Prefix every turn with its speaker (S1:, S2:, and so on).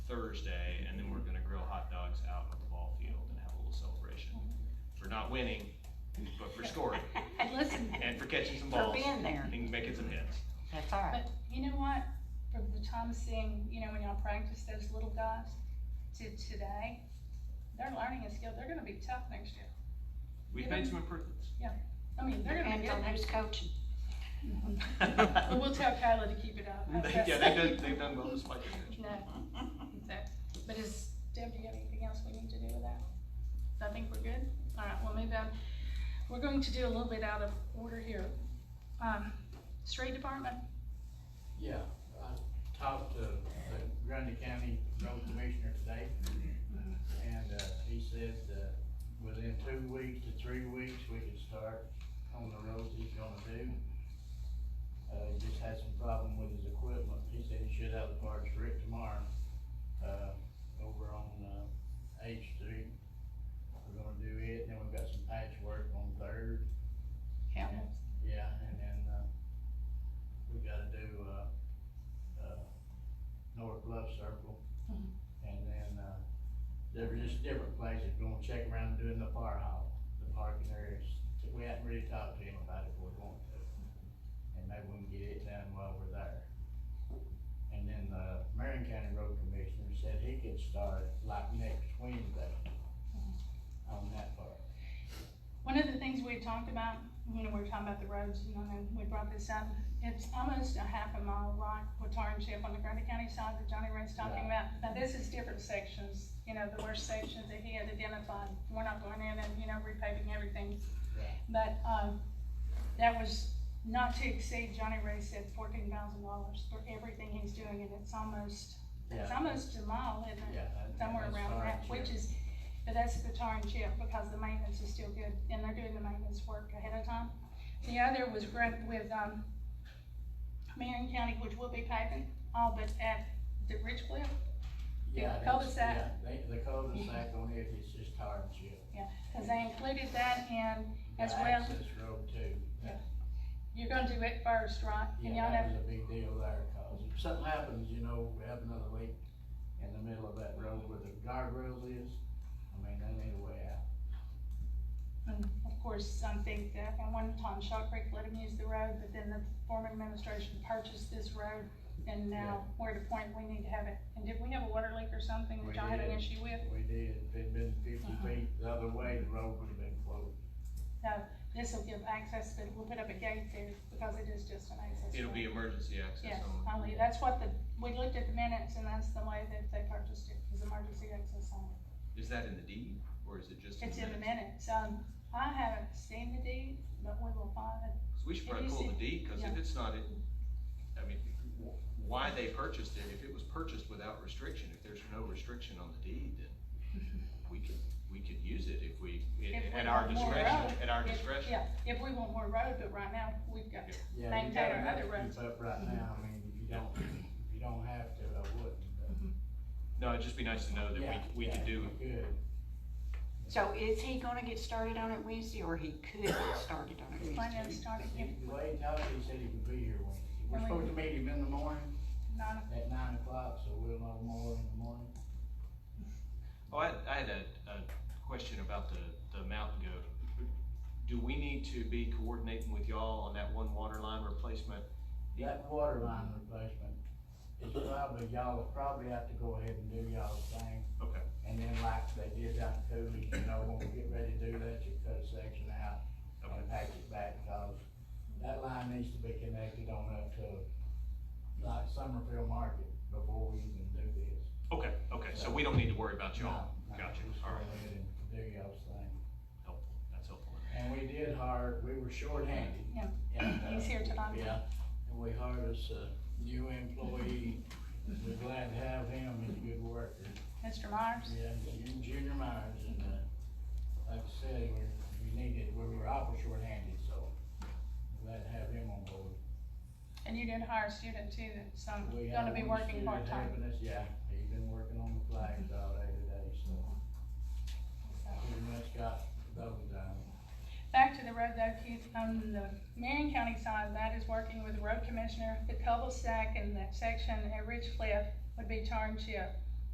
S1: Thursday, and then we're gonna grill hot dogs out at the ball field and have a little celebration for not winning, but for scoring
S2: Listen,
S1: and for catching some
S2: for
S1: balls
S2: being there,
S1: and making some hits.
S2: that's all right.
S3: But you know what, from the time of seeing, you know, when y'all practice those little guys to today, they're learning a skill, they're gonna be tough next year.
S1: We've made some improvements.
S3: I mean, they're gonna be
S2: Depends on
S3: good.
S2: who's coaching.
S3: But we'll tell Kyla to keep it up. How's
S1: They-
S3: that
S1: Yeah, they've
S3: sound?
S1: done, they've done well despite the attention.
S3: No, so, but is, Deb, do you have anything else we need to do with that? I think we're good. All right, well, maybe I'm, we're going to do a little bit out of order here. Um, street department,
S4: Yeah, I talked to the Grundy County Road Commissioner today, and, uh, he said, uh, within two weeks to three weeks, we could start on the roads he's gonna do. Uh, he just had some problem with his equipment, he said he should have the parts for it tomorrow, uh, over on, uh, H Street. We're gonna do it, then we've got some patchwork on Third,
S3: Campbell.
S4: yeah, and then, uh, we gotta do, uh, uh, North Bluff Circle.
S3: Mhm.
S4: And then, uh, there were just different places, we're gonna check around doing the fire hall, the parking areas. We haven't really talked to anybody, but we're going to. And maybe we can get it done while we're there. And then, uh, Marion County Road Commissioner said he could start like next Wednesday
S3: Mm-hmm.
S4: on that part.
S3: One of the things we had talked about, you know, we were talking about the roads, you know, and we brought this up, it's almost a half a mile rock Chip on the Grundy County side that Johnny Ray's talking about. Now, this is different sections, you know, the worst sections that he had identified, we're not going in and, you know, repaving everything.
S4: Yeah.
S3: But, um, that was not to exceed, Johnny Ray said fourteen thousand dollars for everything he's doing, and it's almost, it's
S4: Yeah.
S3: almost a mile, isn't it?
S4: Yeah. that-
S3: somewhere
S4: that's
S3: around
S4: fire
S3: that,
S4: and
S3: which
S4: chip.
S3: is, but that's the tar and chip, because the maintenance is still good, and they're doing the maintenance work ahead of time. The other was grant with, um, Marion County, which will be paving, all but at the Ridge Cliff, The
S4: Yeah, that's-
S3: cul-de-sac.
S4: yeah, they- The cul-de-sac on it is just tar and chip.
S3: because they included that, and
S4: The
S3: As well.
S4: Access road too.
S3: you're gonna do it first, right? And
S4: Yeah,
S3: y'all
S4: that
S3: know,
S4: was a big deal there, cause if something happens, you know, we have another leak in the middle of that road where the guardrails is, I mean, they need a way out.
S3: and of course, I think that at one time Shaw Creek let them use the road, but then the former administration purchased this road, and now we're at a point we need to have it. And did we have a water leak or something that
S4: We
S3: y'all had an
S4: did.
S3: issue with?
S4: We did, if it'd been fifty
S3: Uh-huh.
S4: feet the other way, the road would've been closed.
S3: This will give access, but we'll put up a gate there because it is just an access.
S1: It'll be
S3: road.
S1: emergency access
S3: Yes,
S1: only.
S3: only, that's what the, we looked at the minutes and that's the way that they purchased it, is emergency access only.
S1: Is that in the deed or is it just?
S3: It's in the
S1: minutes?
S3: minutes, um, I haven't seen the deed, but we will find it.
S1: 'Cause We should probably
S3: Have you
S1: pull the
S3: seen-
S1: deed, cause
S3: yeah.
S1: if it's not, in- I mean, wh- why they purchased it, if it was purchased without restriction, if there's no restriction on the deed, then we could, we could use it if we,
S3: If we
S1: at our
S3: want more
S1: discretion,
S3: road,
S1: at our
S3: if-
S1: discretion.
S3: Yeah, if we want more road, but right now, we've got,
S1: Yeah.
S4: Yeah,
S3: Maintain
S4: you gotta
S3: our
S4: have
S3: other
S4: to
S3: roads.
S4: keep up right now, I mean, if you don't, if you don't have to, I wouldn't, but.
S1: No, it'd just be nice to know
S4: Yeah,
S1: that we, we
S4: yeah,
S1: could do
S4: Good.
S2: So is he gonna get started on it Wednesday, or he could get started on it
S3: plan
S2: Wednesday?
S3: on starting
S4: He-
S3: at
S4: The way he talked, he said he could be here Wednesday. We're
S3: Really?
S4: supposed to meet him in the morning,
S3: nine
S4: at nine o'clock, so we'll know more in the morning.
S1: Oh, I, I had a, a question about the, the mountain goat. Do we need to be coordinating with y'all on that one water line replacement?
S4: That water line replacement is probably, y'all probably have to go ahead and do y'all's thing.
S1: Okay.
S4: And then like they did down in Coolidge, you know, when we get ready to do that, you cut a section out
S1: Okay.
S4: and pack it back, cause that line needs to be connected on up to like Summerfield Market before we even do this.
S1: Okay, okay, so we don't need to worry about y'all.
S4: No, no,
S1: Gotcha,
S4: just go
S1: all right,
S4: ahead and Do y'all's thing.
S1: helpful, that's helpful.
S4: And we did hire, we were shorthanded.
S3: Yeah.
S4: And, uh,
S3: He's here tonight.
S4: Yeah, and we hired us a new employee, we're glad to have him, he's a good worker.
S3: Mr. Myers,
S4: Yeah, Ju- Junior Myers, and, uh, like I said, we, we needed, we were awful shorthanded, so glad to have him on board.
S3: and you did hire a student too, that's um,
S4: We
S3: gonna
S4: have
S3: be
S4: one
S3: working
S4: student
S3: part-time.
S4: helping us, Yeah, he's been working on the flags all day today, so pretty much got those done.
S3: Back to the road though, Keith, on the Marion County side, that is working with the road commissioner, the cul-de-sac in that section at Ridge Cliff would be tar and chip.